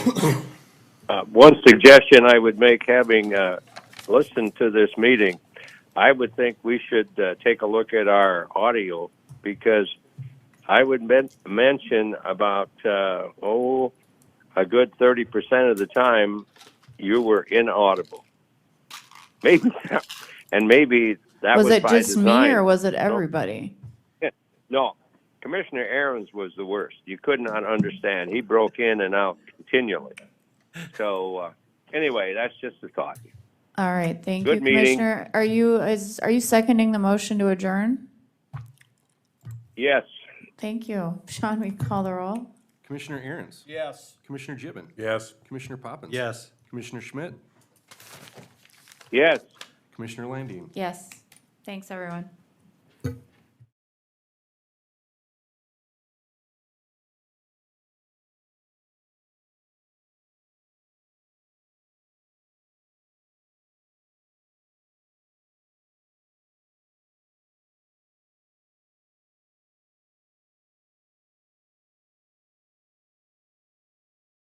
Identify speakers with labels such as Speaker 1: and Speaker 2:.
Speaker 1: Uh, One suggestion I would make, having uh, listened to this meeting, I would think we should uh, take a look at our audio because I would men- mention about, uh, oh, a good 30% of the time you were inaudible. Maybe, and maybe that was,
Speaker 2: Was it
Speaker 1: by
Speaker 2: just
Speaker 1: design.
Speaker 2: me or was it everybody?
Speaker 1: No, Commissioner Aaron's was the worst. You could not understand. He broke in and out continually. So uh, anyway, that's just a thought.
Speaker 2: All right, thank you,
Speaker 1: Good meeting.
Speaker 2: Commissioner. Are you, is, are you seconding the motion to adjourn?
Speaker 1: Yes,
Speaker 2: Thank you. Sean, we call the roll?
Speaker 3: Commissioner Aaron's?
Speaker 4: Yes.
Speaker 3: Commissioner Gibbon?
Speaker 4: Yes.
Speaker 3: Commissioner Poppins?
Speaker 4: Yes.
Speaker 3: Commissioner Schmidt?
Speaker 1: yes.
Speaker 3: Commissioner Landine?
Speaker 2: Yes. Thanks, everyone.